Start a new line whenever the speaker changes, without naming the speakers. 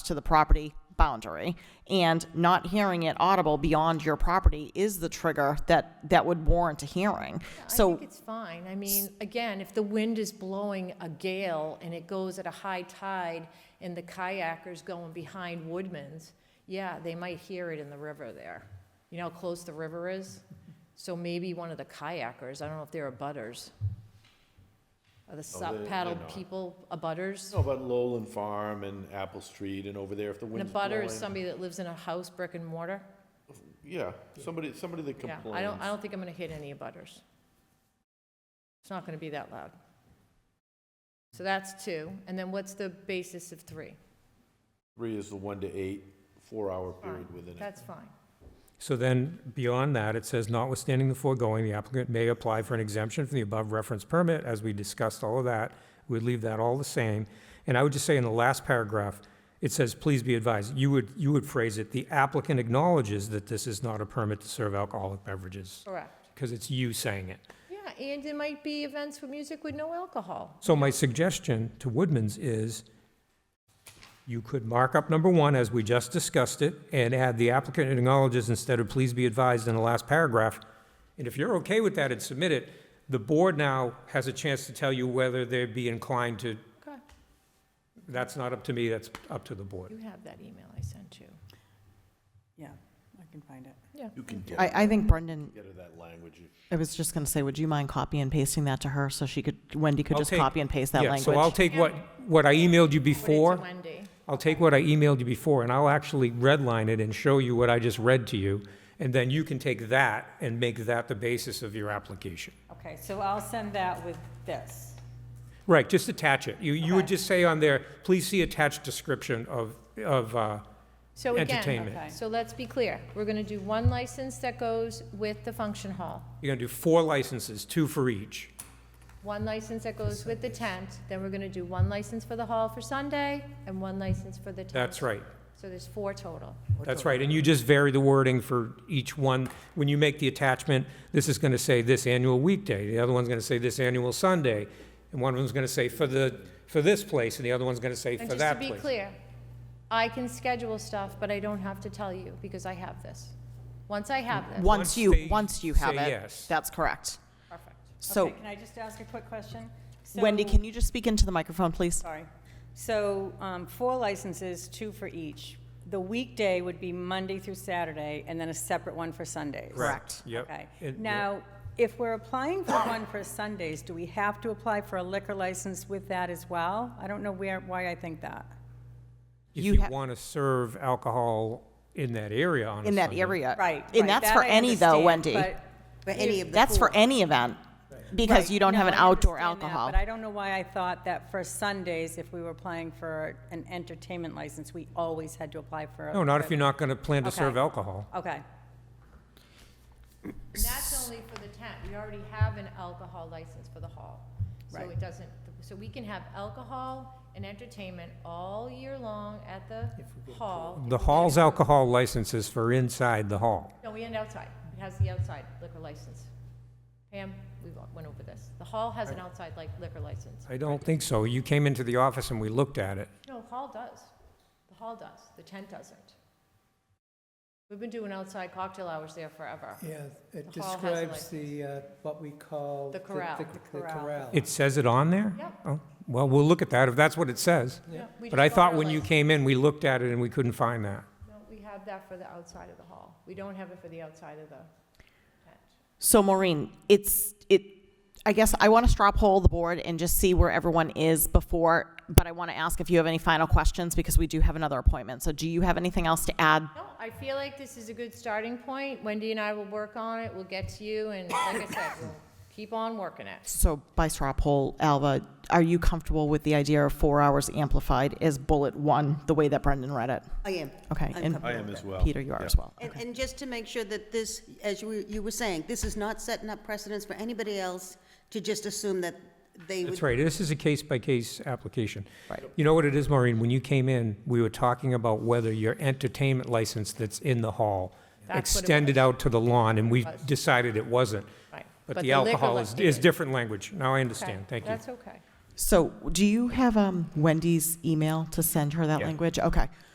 to the property boundary, and not hearing it audible beyond your property is the trigger that, that would warrant a hearing.
I
So,
think it's fine. I mean, again, if the wind is blowing a gale and it goes at a high tide and the kayakers going behind Woodman's, yeah, they might hear it in the river there. You know how close the river is? So maybe one of the kayakers, I don't know if they're abutters. Are the
they-
sup
they're
paddle
not.
people abutters?
know about Lowland Farm and Apple Street and over there, if the
An
wind's blowing.
abutter is somebody that lives in a house, brick and mortar?
Yeah, somebody, somebody that
Yeah,
complains.
I don't, I don't think I'm gonna hit any abutters. It's not gonna be that loud. So that's two, and then what's the basis of three?
Three is the one to eight, four-hour period
Fine,
within it.
That's fine.
So then, beyond that, it says notwithstanding the foregoing, the applicant may apply for an exemption from the above referenced permit, as we discussed all of that. We'd leave that all the same. And I would just say in the last paragraph, it says, please be advised, you would, you would phrase it, the applicant acknowledges that this is not a permit to serve alcoholic beverages,
Correct.
because it's you saying it.
Yeah, and there might be events with music with no alcohol.
So my suggestion to Woodman's is you could mark up number one, as we just discussed it, and add the applicant acknowledges instead of please be advised in the last paragraph. And if you're okay with that and submit it, the board now has a chance to tell you whether they'd be inclined to,
Okay,
that's not up to me, that's up to the board.
you have that email I sent you.
Yeah, I can find it.
Yeah.
You can get,
I, I think Brendan,
get her that language. if-
I was just gonna say, would you mind copy and pasting that to her so she could, Wendy could
I'll
just
take-
copy and paste that
Yeah, So I'll
language?
take what, what I emailed you
Put it to
before.
Wendy.
I'll take what I emailed you before, and I'll actually redline it and show you what I just read to you, and then you can take that and make that the basis of your application.
Okay, so I'll send that with this.
Right, just attach it. You, you would
Okay.
just say on there, please see attached description of, of, uh,
So again,
Entertainment.
Okay.
so let's be clear, we're gonna do one license that goes with the function hall,
you're gonna do four licenses, two for each.
one license that goes with the tent, then we're gonna do one license for the hall for Sunday, and one license for the tent.
That's right,
So there's four total.
that's right. And you just vary the wording for each one. When you make the attachment, this is gonna say this annual weekday, the other one's gonna say this annual Sunday, and one of them's gonna say for the, for this place, and the other one's gonna say
And
for
just to
that
be
place.
clear, I can schedule stuff, but I don't have to tell you because I have this. Once I have this,
Once
Once
you,
they
once you have
say
it,
yes.
that's correct.
perfect.
So.
Okay, Can I just ask a quick question?
Wendy,
So-
can you just speak into the microphone, please?
Sorry. So, um, four licenses, two for each. The weekday would be Monday through Saturday, and then a separate one for Sundays.
Correct.
Yep.
Okay.
It-
Now, if we're applying for one for Sundays, do we have to apply for a liquor license with that as well? I don't know where, why I think that.
If
You
you
ha-
want to serve alcohol in that area on a
In that
Sunday.
area.
Right.
And
right,
that's
that
for
I
any though,
understand,
Wendy.
but-
For any of the
That's for
four.
any event, because you don't
No,
have an
I
outdoor
understand that,
alcohol.
But I don't know why I thought that for Sundays, if we were applying for an entertainment license, we always had to apply for. a-
No, not if you're not going to plan to
Okay.
serve alcohol.
Okay,
And that's only for the tent. We already have an alcohol license for the hall. So
Right.
it doesn't, so we can have alcohol and entertainment all year long at the hall.
The hall's alcohol license is for inside the hall.
No, we end outside. It has the outside liquor license. Pam, we went over this. The hall has an outside like liquor license.
I don't think so. You came into the office and we looked at it.
No, hall does. The hall does. The tent doesn't. We've been doing outside cocktail hours there forever.
Yeah, it
The hall has a
describes the, uh, what we call.
The corral.
The
The
corral.
corral.
It says it on there?
Yep.
Oh, Well, we'll look at that if that's what it says.
Yeah, we
But
just
I
got
thought
our
when you
license.
came in, we looked at it and we couldn't find that.
No, we have that for the outside of the hall. We don't have it for the outside of the tent.
So Maureen, it's, it, I guess I want to straw poll the board and just see where everyone is before, but I want to ask if you have any final questions, because we do have another appointment. So do you have anything else to add?
No, I feel like this is a good starting point. Wendy and I will work on it. We'll get to you, and like I said, we'll keep on working it.
So by straw poll, Alva, are you comfortable with the idea of four hours amplified as bullet one, the way that Brendan read it?
I am.
Okay, and-
I'm comfortable
I am
with
as
it.
well.
Peter, you are
Yeah.
as well.
And, and just to make sure that this, as you, were- you were saying, this is not setting up precedence for anybody else to just assume that they would.
That's right, this is a case-by-case application. Right. You know what it is, Maureen, when you came in, we were talking about whether your entertainment license that's in the hall
That's what it
extended
was.
out to the lawn, and we
It was.
decided it wasn't.
Right.
But
But
the
the liquor
alcohol is,
license-
is different language, now I
Okay,
understand, thank you.
That's okay.
So do you have um, Wendy's email to send her that
Yeah.
language? Okay.